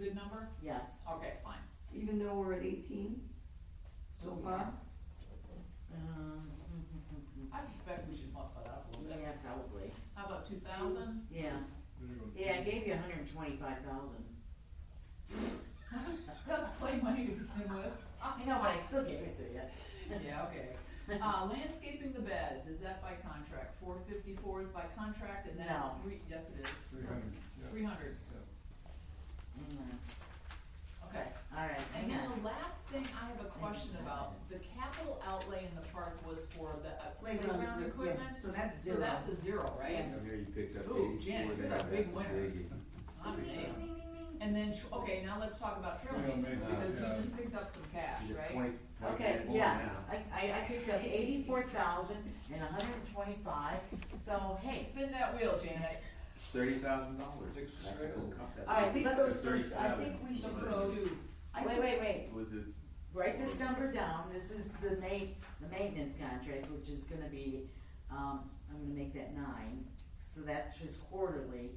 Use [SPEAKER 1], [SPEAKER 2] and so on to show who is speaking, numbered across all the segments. [SPEAKER 1] Good number?
[SPEAKER 2] Yes,
[SPEAKER 1] Okay, fine.
[SPEAKER 3] even though we're at eighteen so far?
[SPEAKER 2] um,
[SPEAKER 1] I suspect we should bump it up a little bit.
[SPEAKER 2] yeah, probably,
[SPEAKER 1] How about two thousand?
[SPEAKER 2] yeah, yeah, I gave you hundred and twenty-five thousand.
[SPEAKER 1] That was play money to begin with.
[SPEAKER 2] I know, but I still gave it to you.
[SPEAKER 1] Yeah, okay. Uh, landscaping the beds, is that by contract? Four fifty-four is by contract and that's
[SPEAKER 2] No.
[SPEAKER 1] three, yes it is.
[SPEAKER 4] Three hundred, yeah.
[SPEAKER 1] Three hundred,
[SPEAKER 2] Mm-hmm.
[SPEAKER 1] okay.
[SPEAKER 2] Alright,
[SPEAKER 1] And then the last thing I have a question about, the capital outlay in the park was for the uh,
[SPEAKER 2] Playground
[SPEAKER 1] playground
[SPEAKER 2] equipment,
[SPEAKER 1] equipment?
[SPEAKER 3] So that's
[SPEAKER 1] So
[SPEAKER 3] zero.
[SPEAKER 1] that's a zero, right?
[SPEAKER 2] Yeah.
[SPEAKER 5] I hear you picked up
[SPEAKER 1] Ooh,
[SPEAKER 5] eighty-four
[SPEAKER 1] Janet,
[SPEAKER 5] and a
[SPEAKER 1] you're a
[SPEAKER 5] half, that's a
[SPEAKER 1] big winner.
[SPEAKER 5] biggie.
[SPEAKER 1] I'm damn. And then, tr- okay, now let's talk about trail
[SPEAKER 4] Trail
[SPEAKER 1] maintenance,
[SPEAKER 4] maintenance,
[SPEAKER 1] because
[SPEAKER 4] yeah.
[SPEAKER 1] we just picked up some cash,
[SPEAKER 5] She's a
[SPEAKER 1] right?
[SPEAKER 5] twenty- twenty
[SPEAKER 2] Okay,
[SPEAKER 5] grand more
[SPEAKER 2] yes,
[SPEAKER 5] now.
[SPEAKER 2] I, I, I picked up eighty-four thousand and hundred and twenty-five, so hey,
[SPEAKER 1] Spin that wheel, Janet.
[SPEAKER 5] Thirty thousand dollars.
[SPEAKER 4] Six
[SPEAKER 5] That's a
[SPEAKER 4] trail.
[SPEAKER 5] good comp- that's
[SPEAKER 2] All right,
[SPEAKER 5] a-
[SPEAKER 2] these
[SPEAKER 5] that's
[SPEAKER 3] those first- I
[SPEAKER 5] 37.
[SPEAKER 3] think we should
[SPEAKER 5] Those
[SPEAKER 3] go-
[SPEAKER 5] two
[SPEAKER 1] Two.
[SPEAKER 3] I
[SPEAKER 2] wait,
[SPEAKER 3] think-
[SPEAKER 2] wait, wait,
[SPEAKER 5] Was his,
[SPEAKER 2] write this number down, this is the ma- the maintenance contract, which is gonna be, um, I'm gonna make that nine, so that's his quarterly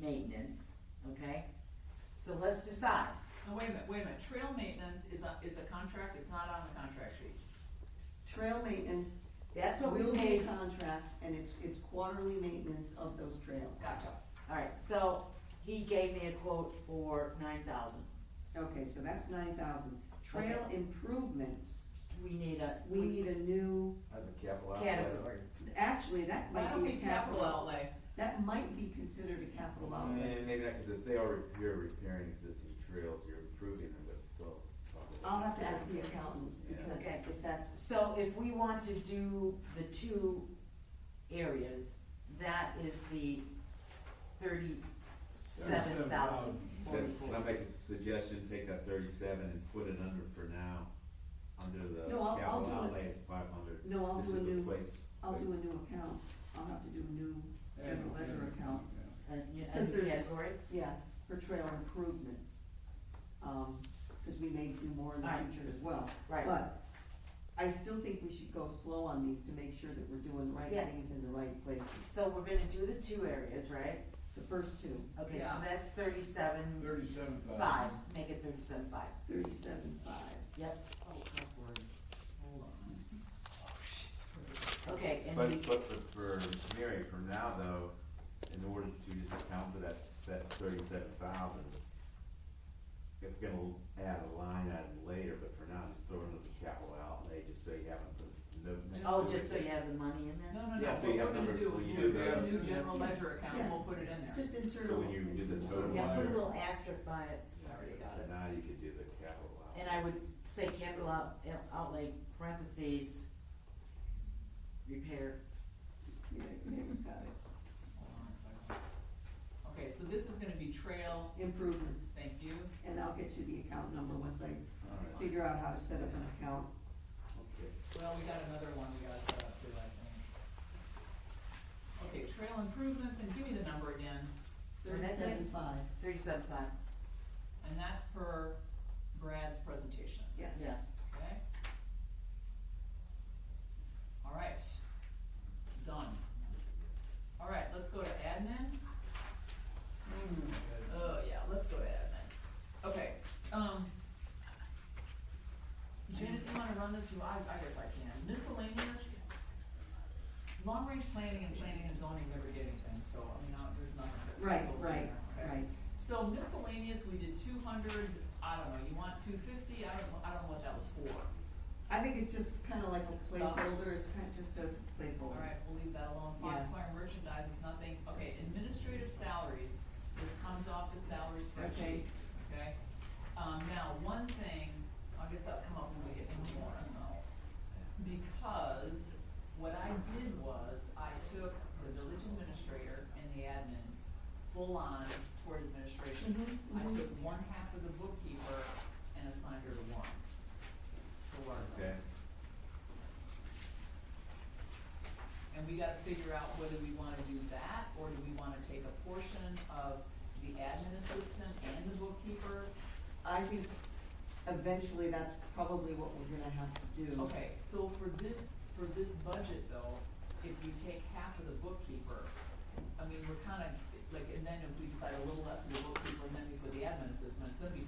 [SPEAKER 2] maintenance, okay? So let's decide,
[SPEAKER 1] No, wait a minute, wait a minute, trail maintenance is a, is a contract, it's not on the contract sheet.
[SPEAKER 3] Trail maintenance,
[SPEAKER 2] that's what we
[SPEAKER 3] we'll pay
[SPEAKER 2] paid,
[SPEAKER 3] contract, and it's, it's quarterly maintenance of those trails.
[SPEAKER 1] Gotcha.
[SPEAKER 2] alright, so he gave me a quote for nine thousand,
[SPEAKER 3] Okay, so that's nine thousand. Trail improvements,
[SPEAKER 2] we need a,
[SPEAKER 3] we need a new,
[SPEAKER 5] that's a capital outlay.
[SPEAKER 2] category,
[SPEAKER 3] actually, that
[SPEAKER 1] Why
[SPEAKER 3] might
[SPEAKER 1] don't
[SPEAKER 3] be
[SPEAKER 1] we
[SPEAKER 3] a
[SPEAKER 1] capital
[SPEAKER 3] capital,
[SPEAKER 1] outlay?
[SPEAKER 3] that might be considered a capital outlay.
[SPEAKER 5] And Eh, maybe not, cause if they are, re- you're repairing existing trails, you're improving them, but it's still. probably-
[SPEAKER 3] I'll have to ask the accountant,
[SPEAKER 5] Yeah.
[SPEAKER 3] because if that's,
[SPEAKER 2] So if we want to do the two areas, that is the thirty-seven thousand
[SPEAKER 5] Can can I
[SPEAKER 2] forty-four.
[SPEAKER 5] make a suggestion, take that thirty-seven and put it under for now, under the
[SPEAKER 3] No, I'll- I'll
[SPEAKER 5] capital
[SPEAKER 3] do it.
[SPEAKER 5] outlay is five hundred.
[SPEAKER 3] no, I'll do a
[SPEAKER 5] This is a
[SPEAKER 3] new,
[SPEAKER 5] place.
[SPEAKER 3] I'll do a
[SPEAKER 5] place-
[SPEAKER 3] new account, I'll have to do a new general ledger account,
[SPEAKER 2] Uh, yeah, As
[SPEAKER 3] Because
[SPEAKER 2] a
[SPEAKER 3] there's-
[SPEAKER 2] category,
[SPEAKER 3] yeah, for trail improvements. Um, cause we may do more in the
[SPEAKER 2] Right.
[SPEAKER 3] future as well.
[SPEAKER 2] right,
[SPEAKER 3] But I still think we should go slow on these to make sure that we're doing the right
[SPEAKER 2] Yes.
[SPEAKER 3] things in the right places,
[SPEAKER 2] so we're gonna do the two areas, right?
[SPEAKER 3] the first two.
[SPEAKER 2] Okay, so
[SPEAKER 1] Yeah.
[SPEAKER 2] that's thirty-seven
[SPEAKER 4] Thirty-seven thousand.
[SPEAKER 2] five, make it thirty-seven five,
[SPEAKER 3] Thirty-seven five.
[SPEAKER 2] yep,
[SPEAKER 1] Oh, crossword. Hold on. Oh, shit.
[SPEAKER 2] okay, and we,
[SPEAKER 5] But, but for- for Mary, for now though, in order to just account for that set thirty-seven thousand, if we're gonna add a line item later, but for now, just throw another capital outlay, just so you have a, no. next
[SPEAKER 2] oh,
[SPEAKER 5] to it.
[SPEAKER 2] just so you have the money in there?
[SPEAKER 1] No, no, no,
[SPEAKER 5] Yeah,
[SPEAKER 1] what
[SPEAKER 5] so you
[SPEAKER 1] we're
[SPEAKER 5] have
[SPEAKER 1] gonna
[SPEAKER 5] numbers
[SPEAKER 1] do
[SPEAKER 5] when
[SPEAKER 1] is
[SPEAKER 5] you
[SPEAKER 1] we'll
[SPEAKER 5] do
[SPEAKER 1] create a
[SPEAKER 5] the-
[SPEAKER 1] new general ledger account, and
[SPEAKER 3] Yeah.
[SPEAKER 1] we'll put it in there.
[SPEAKER 3] Just insert a
[SPEAKER 5] So
[SPEAKER 3] little.
[SPEAKER 5] when you do the total
[SPEAKER 2] Yeah,
[SPEAKER 5] line.
[SPEAKER 2] put a little asterisk by it,
[SPEAKER 5] Yeah,
[SPEAKER 1] I already got it.
[SPEAKER 5] but Now you could do the capital outlay.
[SPEAKER 2] and I would say capital out, outlay parentheses, repair.
[SPEAKER 3] Yeah, Mary's got it.
[SPEAKER 1] Hold on a second. Okay, so this is gonna be trail,
[SPEAKER 3] Improvements,
[SPEAKER 1] thank you.
[SPEAKER 3] and I'll get you the account number once I
[SPEAKER 5] All right,
[SPEAKER 3] figure out how to set up an account.
[SPEAKER 5] okay.
[SPEAKER 1] Well, we got another one we gotta set up too, I think. Okay, trail improvements, and give me the number again.
[SPEAKER 2] Thirty-seven.
[SPEAKER 3] five.
[SPEAKER 2] Thirty-seven five,
[SPEAKER 1] And that's per Brad's presentation,
[SPEAKER 3] Yes.
[SPEAKER 2] yes.
[SPEAKER 1] okay? All right, done. All right, let's go to admin. Oh, yeah, let's go to admin. Okay, um. Janice, you wanna run this, you, I, I guess I can. Miscellaneous, long-range planning and planning and zoning never get anything, so, I mean, I- there's nothing. that we
[SPEAKER 3] Right,
[SPEAKER 1] go through
[SPEAKER 3] right,
[SPEAKER 1] there, okay?
[SPEAKER 3] right.
[SPEAKER 1] So miscellaneous, we did two hundred, I don't know, you want two fifty, I don't, know- I don't know what that was for.
[SPEAKER 3] I think it's just kinda like a
[SPEAKER 1] Stop.
[SPEAKER 3] placeholder, it's kinda just a placeholder.
[SPEAKER 1] Alright, we'll leave that alone,
[SPEAKER 3] Yeah.
[SPEAKER 1] Foxfire merchandise is nothing, okay, administrative salaries, this comes off the salary
[SPEAKER 3] Okay.
[SPEAKER 1] spreadsheet, okay? Um, now, one thing, I guess that'll come up when we get to the warrant, because what I did was, I took the village administrator and the admin full-on toward administration.
[SPEAKER 3] Mhm,
[SPEAKER 1] I
[SPEAKER 3] mhm.
[SPEAKER 1] took one half of the bookkeeper and assigned her to warrant, to warrant.
[SPEAKER 5] Okay,
[SPEAKER 1] And we gotta figure out whether we wanna do that, or do we wanna take a portion of the admin assistant and the bookkeeper?
[SPEAKER 3] I think eventually that's probably what we're gonna have to do.
[SPEAKER 1] Okay, so for this, for this budget though, if we take half of the bookkeeper, I mean, we're kinda, like, and then if we decide a little less, we will, and then we put the admin assistant, it's gonna be